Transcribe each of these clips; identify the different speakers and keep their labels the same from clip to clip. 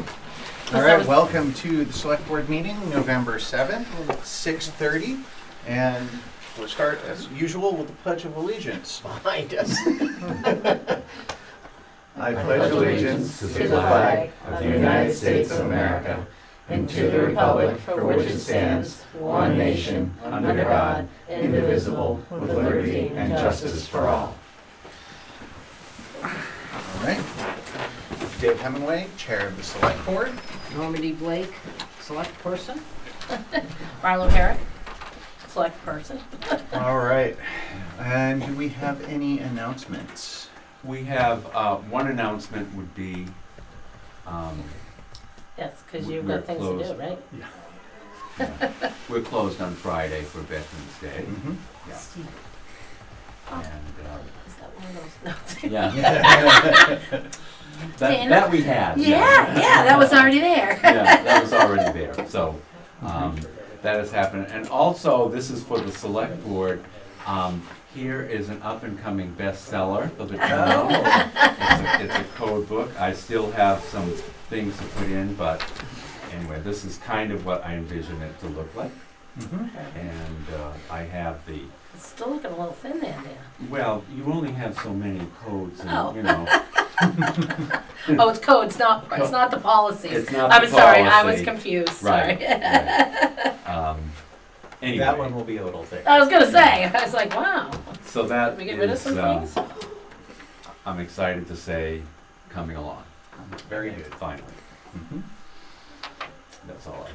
Speaker 1: All
Speaker 2: Yes, I
Speaker 1: right,
Speaker 2: was-
Speaker 1: welcome to the select board meeting, November 7th, 6:30. And we'll start as usual with the Pledge of Allegiance.
Speaker 3: behind us.
Speaker 4: I pledge allegiance to the flag of the United States of America and to the republic for which it stands, one nation, under God, indivisible, with liberty and justice for all.
Speaker 1: All right. Dave Hemingway, Chair of the Select Board.
Speaker 2: Normandy Blake, select person. Marlo Herrick, select person.
Speaker 1: All right. And do we have any announcements?
Speaker 5: We have, uh, one announcement would be, um,
Speaker 2: Yes, because
Speaker 5: We-
Speaker 2: you've
Speaker 5: we're
Speaker 2: got things to do,
Speaker 5: closed.
Speaker 2: right?
Speaker 5: we're closed on Friday for Veterans Day.
Speaker 3: Mm-hmm.
Speaker 1: Mhm.
Speaker 5: Yeah.
Speaker 2: Steve, Oh.
Speaker 5: And, uh,
Speaker 2: is that one of those? No.
Speaker 5: yeah,
Speaker 1: Mm-hmm.
Speaker 5: that,
Speaker 2: Dana?
Speaker 5: that we had.
Speaker 2: Yeah, yeah, that was already there.
Speaker 5: Yeah, that was already there, so, um, that has happened. And also, this is for the select board, um, here is an up-and-coming bestseller for the town. It's a- It's a code book. I still have some things to put in, but anyway, this is kind of what I envision it to look like.
Speaker 1: Mhm.
Speaker 5: And uh, I have the,
Speaker 2: It's still looking a little thin there,
Speaker 5: well, you only have so many codes
Speaker 2: Oh.
Speaker 5: and, you know.
Speaker 2: Dan. Oh, it's codes, not, it's not the policies.
Speaker 5: Hmm. It's not
Speaker 2: I'm
Speaker 5: the
Speaker 2: sorry, I was
Speaker 5: policy.
Speaker 2: confused, sorry.
Speaker 5: Right. right. Um,
Speaker 3: That one
Speaker 5: Anyway,
Speaker 3: will be a little thick.
Speaker 2: I was gonna say, I was like, wow,
Speaker 5: so
Speaker 2: can
Speaker 5: that
Speaker 2: we get rid of
Speaker 5: is,
Speaker 2: some
Speaker 5: um,
Speaker 2: things?
Speaker 5: I'm excited to say, coming along,
Speaker 1: Very good.
Speaker 5: finally.
Speaker 1: Mhm.
Speaker 5: That's all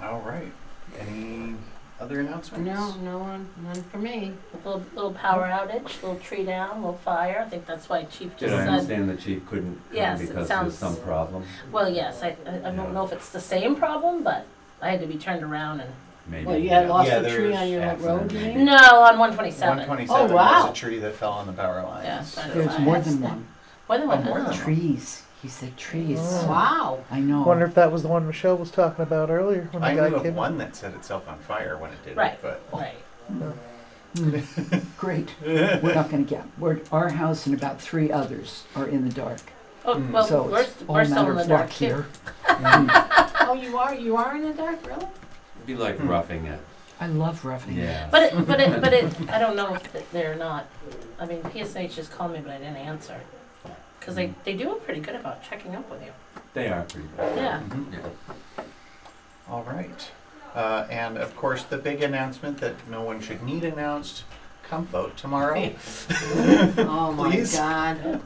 Speaker 5: I
Speaker 1: All right. Any other announcements?
Speaker 6: No, no one, none for me.
Speaker 2: A Little, little power outage, little tree down, little fire, I think that's why Chief
Speaker 5: can. Did
Speaker 2: just
Speaker 5: I
Speaker 2: said,
Speaker 5: understand the chief couldn't come
Speaker 2: Yes, it
Speaker 5: because
Speaker 2: sounds-
Speaker 5: there's some problem?
Speaker 2: well, yes, I, I I don't know if it's the same problem, but I had to be turned around and
Speaker 5: Maybe.
Speaker 6: Well, you had lost
Speaker 3: Yeah,
Speaker 6: a tree on
Speaker 3: there's
Speaker 6: your road,
Speaker 5: accident.
Speaker 6: you mean?
Speaker 2: No, on 127.
Speaker 1: 127
Speaker 6: Oh,
Speaker 1: was
Speaker 6: wow.
Speaker 1: a tree that fell on the power lines.
Speaker 2: Yeah.
Speaker 7: There's more than one.
Speaker 2: More than
Speaker 1: Oh,
Speaker 2: one.
Speaker 1: more than one.
Speaker 7: Trees. He said trees.
Speaker 6: Wow.
Speaker 7: I know.
Speaker 8: Wonder if that was the one Michelle was talking about earlier when
Speaker 1: I
Speaker 8: the guy
Speaker 1: knew of
Speaker 8: came.
Speaker 1: one that set itself on fire when it did it,
Speaker 2: Right.
Speaker 1: but
Speaker 2: Right.
Speaker 7: Great. We're not going to get. We're, our house and about three others are in the dark.
Speaker 2: Oh,
Speaker 1: Mm.
Speaker 2: well,
Speaker 7: so
Speaker 2: we're,
Speaker 7: it's all
Speaker 2: we're
Speaker 7: a
Speaker 2: still
Speaker 7: matter
Speaker 2: in the
Speaker 7: of
Speaker 2: dark
Speaker 7: luck
Speaker 2: too.
Speaker 7: here.
Speaker 6: Oh, you are, you are in the dark, really?
Speaker 5: It'd be like
Speaker 6: Hmm.
Speaker 5: roughing it.
Speaker 7: I love roughing it.
Speaker 5: Yeah.
Speaker 2: But it, but it, but it, I don't know if th- they're not. I mean, PSNH just called me, but I didn't answer. Because they,
Speaker 1: Hmm.
Speaker 2: they do it pretty good about checking up with you.
Speaker 5: They are pretty good.
Speaker 2: Yeah.
Speaker 1: Mhm.
Speaker 5: Yeah.
Speaker 1: All right. Uh, and of course, the big announcement that no one should need announced come vote tomorrow.
Speaker 6: Oh, my
Speaker 1: Please.
Speaker 6: God.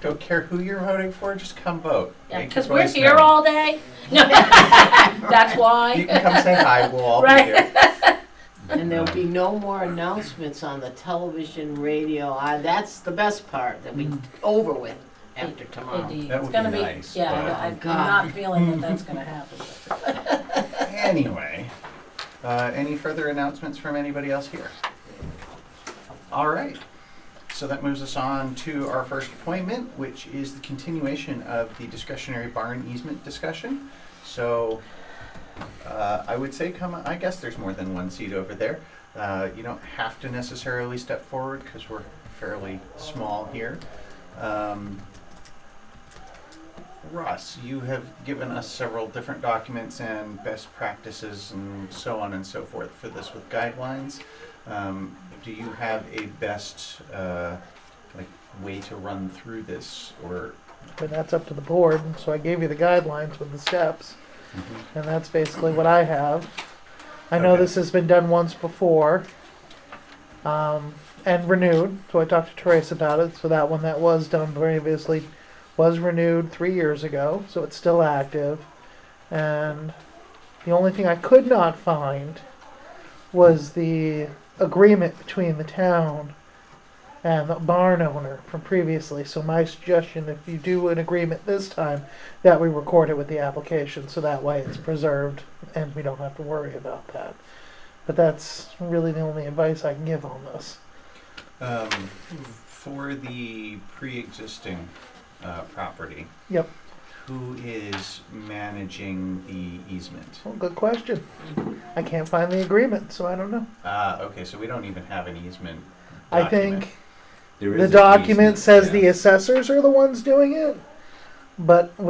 Speaker 1: Don't care who you're voting for, just come vote.
Speaker 2: Yeah,
Speaker 1: Make your
Speaker 2: because we're
Speaker 1: voice
Speaker 2: here
Speaker 1: known.
Speaker 2: all day. No, that's
Speaker 1: You
Speaker 2: why.
Speaker 1: can come say hi, we'll all
Speaker 2: Right.
Speaker 1: be here.
Speaker 6: And there'll be no more announcements on the television, radio. I- That's the best part, that we over with after tomorrow.
Speaker 2: Indeed.
Speaker 1: That
Speaker 2: it's
Speaker 1: would
Speaker 2: gonna
Speaker 1: be
Speaker 2: be,
Speaker 1: nice,
Speaker 2: yeah,
Speaker 1: but-
Speaker 2: I- I'm
Speaker 6: God.
Speaker 2: not feeling that that's going to happen.
Speaker 1: Anyway, uh, any further announcements from anybody else here? All right. So that moves us on to our first appointment, which is the continuation of the discretionary barn easement discussion. So uh, I would say come, I guess there's more than one seat over there. Uh, You don't have to necessarily step forward because we're fairly small here. Um, Russ, you have given us several different documents and best practices and so on and so forth for this with guidelines. Um, do you have a best uh, like way to run through this or?
Speaker 8: But that's up to the board. So I gave you the guidelines with the steps, and that's basically what I have. I know
Speaker 1: Okay.
Speaker 8: this has been done once before, um, and renewed. So I talked to Teresa about it. So that one that was done previously was renewed three years ago. So it's still active. And the only thing I could not find was the agreement between the town and the barn owner from previously. So my suggestion, if you do an agreement this time, that we record it with the application, so that way it's preserved and we don't have to worry about that. But that's really the only advice I can give on this.
Speaker 1: Um, for the pre-existing uh, property.
Speaker 8: Yep.
Speaker 1: Who is managing the easement?
Speaker 8: Well, good question. I can't find the agreement, so I don't know.
Speaker 1: Ah, okay, so we don't even have an easement.
Speaker 8: I
Speaker 1: document.
Speaker 8: think
Speaker 5: There
Speaker 8: the
Speaker 5: is an
Speaker 8: document
Speaker 5: easement,
Speaker 8: says
Speaker 5: yeah.
Speaker 8: the assessors are the ones doing it, but